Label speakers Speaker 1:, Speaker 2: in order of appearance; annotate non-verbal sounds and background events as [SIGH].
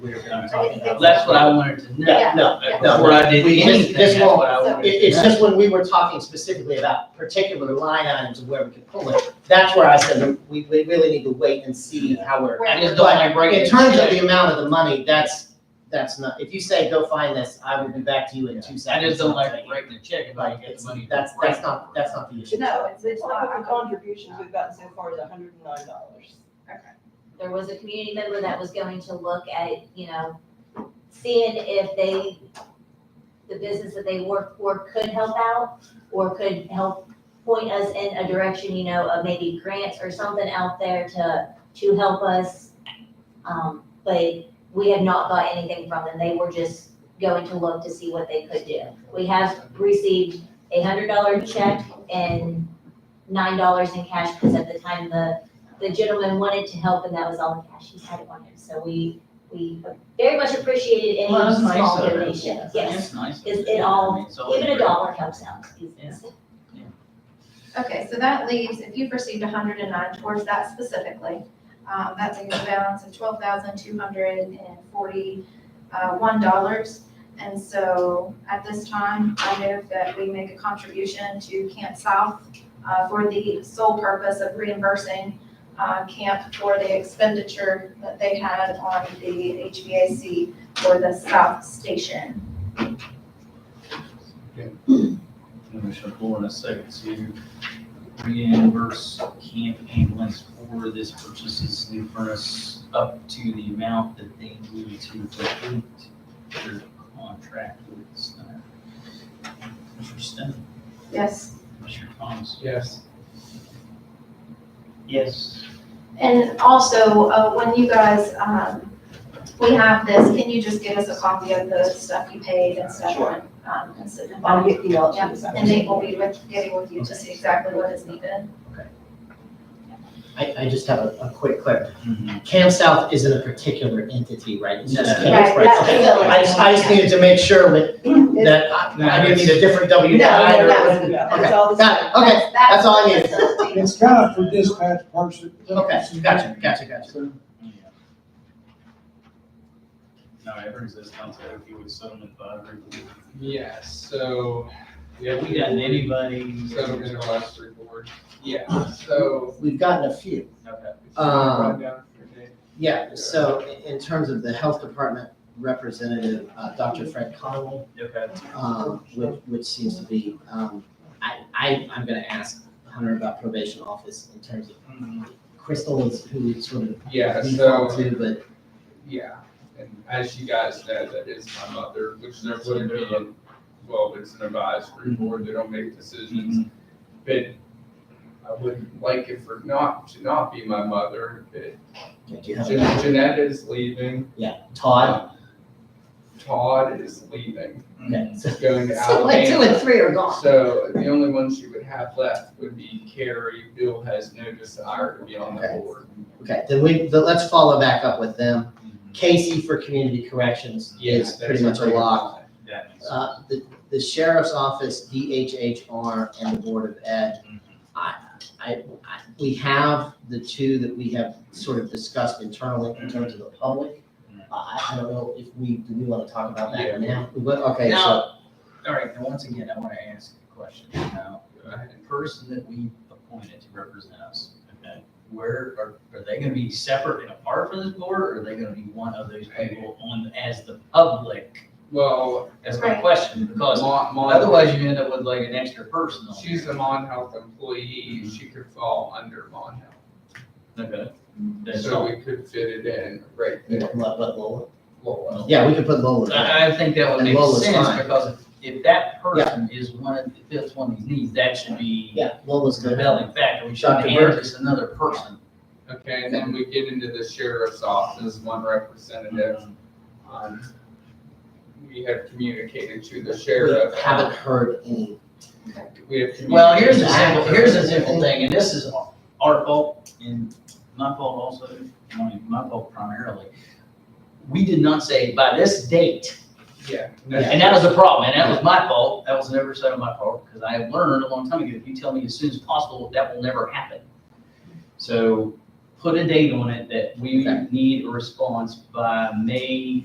Speaker 1: we were gonna talk about.
Speaker 2: That's what I wanted to know.
Speaker 3: Yeah, no, no,
Speaker 2: Before I did
Speaker 3: We just-
Speaker 2: anything,
Speaker 3: this
Speaker 2: that's what
Speaker 3: won't-
Speaker 2: I wanted to know.
Speaker 3: It, it's just when we were talking specifically about particular line items of where we could pull it, that's where I said, that we, we really need to wait and see how we're.
Speaker 2: I just don't wanna break
Speaker 3: In
Speaker 2: it.
Speaker 3: terms of the amount of the money, that's, that's not, if you say, go find this, I will be back to you in two
Speaker 2: I
Speaker 3: seconds.
Speaker 2: just don't like
Speaker 3: I'll tell you.
Speaker 2: breaking the check if I
Speaker 3: Like,
Speaker 2: get
Speaker 3: it's,
Speaker 2: the money.
Speaker 3: that's, that's not, that's not the issue.
Speaker 4: No, it's, it's
Speaker 5: Well,
Speaker 4: not,
Speaker 5: the contributions we've gotten so far is hundred and nine dollars.
Speaker 6: there was a community member that was going to look at, you know, seeing if they, the business that they work for could help out or could help point us in a direction, you know, of maybe grants or something out there to, to help us. Um, but we have not got anything from them. They were just going to look to see what they could do. We have received a hundred dollar check and nine dollars in cash because at the time the the gentleman wanted to help and that was all the cash he had on him. So we, we very much appreciated any
Speaker 2: Well, that's nice
Speaker 6: small
Speaker 2: of them.
Speaker 6: donation, yes.
Speaker 2: That's nice.
Speaker 6: Is it all-
Speaker 2: I mean, it's all
Speaker 6: Even a
Speaker 2: great.
Speaker 6: dollar helps out. It's- it's-
Speaker 7: Okay, so that leaves, if you've received hundred and nine towards that specifically, um, that leaves a balance of twelve thousand two hundred and forty, uh, one dollars. And so at this time, I move that we make a contribution to Camp South, uh, for the sole purpose of reimbursing, uh, camp for the expenditure that they had on the HVAC for the South Station.
Speaker 2: Commissioner Coyle in a second to reimburse camp ambulance for this purchases new furnace up to the amount that they need to complete their contract with Snyder. Commissioner Stan,
Speaker 7: Yes.
Speaker 2: Commissioner Thomas.
Speaker 1: Yes.
Speaker 2: Yes.
Speaker 7: And also, uh, when you guys, um, we have this, can you just give us a copy of the stuff you paid and stuff on, um, and sit down?
Speaker 5: I'll get the all
Speaker 7: Yeah, and Nate will be with, getting with you to see exactly what is needed.
Speaker 3: I, I just have a, a quick clarif,
Speaker 2: Mm-hmm.
Speaker 3: Camp South isn't a particular entity, right? It's just
Speaker 2: No.
Speaker 3: camps,
Speaker 5: Right,
Speaker 3: right?
Speaker 5: that's
Speaker 3: Okay.
Speaker 5: facility.
Speaker 3: I just, I just needed to make sure
Speaker 5: [CLEARS THROAT]
Speaker 3: with, that I, I didn't need a different W nine or.
Speaker 5: No, no, that's- that's all the-
Speaker 3: Got it, okay, that's all I needed.
Speaker 7: [LAUGHS] need.
Speaker 8: It's kind of for dispatch person.
Speaker 3: okay, gotcha, gotcha, gotcha.
Speaker 2: Now, everyone's this council, if you would settlement five.
Speaker 1: Yeah, so.
Speaker 2: Yeah, we got anybody.
Speaker 1: Settlement of last report. Yeah, so.
Speaker 3: We've gotten a few.
Speaker 2: Okay.
Speaker 3: Um,
Speaker 1: Rundown for Nate.
Speaker 3: Yeah, so i- in terms of the health department representative, uh, Dr. Fred Conley,
Speaker 2: Okay.
Speaker 3: um, which, which seems to be, um, I, I, I'm gonna ask Hunter about probation office in terms of,
Speaker 2: Mm-hmm.
Speaker 3: Crystal is who we sort of
Speaker 1: Yeah,
Speaker 3: default
Speaker 1: so,
Speaker 3: to, but
Speaker 1: yeah, and as you guys know, that is my mother, which there wouldn't be, a- well, it's an advisory board, they don't make decisions. But I wouldn't like it for not, to not be my mother, but
Speaker 3: do you have, a-
Speaker 1: Jan- Jeanette is leaving,
Speaker 3: yeah, Todd?
Speaker 1: Todd is leaving,
Speaker 2: Mm-hmm.
Speaker 3: Okay, [LAUGHS] so-
Speaker 1: going to
Speaker 5: So like two and
Speaker 1: Alabama.
Speaker 5: three are gone.
Speaker 1: So the only ones you would have left would be Carrie, Bill has no desire to be on the
Speaker 3: Okay.
Speaker 1: board.
Speaker 3: Okay, then we, then let's follow back up with them. Casey for community corrections
Speaker 1: Yeah,
Speaker 3: is
Speaker 1: that's
Speaker 3: pretty much a
Speaker 1: pretty
Speaker 3: lock.
Speaker 1: much it.
Speaker 2: That makes sense.
Speaker 3: Uh, the, the sheriff's office, DHHR, and the Board of Ed. I, I, I, we have the two that we have sort of discussed internally in terms of the public. I, I don't know if we, do we wanna talk about that now? But, okay, so,
Speaker 2: All right, now, once again, I want to ask a question. Now, the person that we appointed to represent us, okay, where are, are they going to be separate and apart from this board, or are they going to be one of those people on, as the public?
Speaker 1: Well,
Speaker 2: That's my
Speaker 7: Right.
Speaker 2: question, because
Speaker 1: Mon, Mon,
Speaker 2: otherwise you end up with like an extra person on
Speaker 1: she's a Mon Health employee, she could fall under Mon Health.
Speaker 2: there. Okay. That's
Speaker 1: So
Speaker 2: all.
Speaker 1: we could fit it in right there.
Speaker 3: but Lola,
Speaker 1: Lola.
Speaker 3: yeah, we could put Lola. there.
Speaker 2: I, I think that would
Speaker 3: And
Speaker 2: make
Speaker 3: Lola's
Speaker 2: sense,
Speaker 3: fine.
Speaker 2: because if, if that person is one of, if that's one of these needs, that should be
Speaker 3: Yeah, Lola's
Speaker 2: the
Speaker 3: good.
Speaker 2: compelling factor. We shouldn't
Speaker 3: Dr.
Speaker 2: hand this another person.
Speaker 1: Okay, and then we get into the sheriff's office, one representative. um, We have communicated to the
Speaker 3: We
Speaker 1: sheriff.
Speaker 3: haven't heard any,
Speaker 1: We have communicated.
Speaker 2: Well, here's the
Speaker 3: a
Speaker 2: simple, here's the simple thing, and this is our fault and my fault also, I mean, my fault primarily. We did not say by this date,
Speaker 1: Yeah.
Speaker 2: and that was the problem, and that was my fault, that was an oversight on my part, because I learned a long time ago, if you tell me as soon as possible, that will never happen. So put a date on it that we
Speaker 3: Okay.
Speaker 2: need a response by May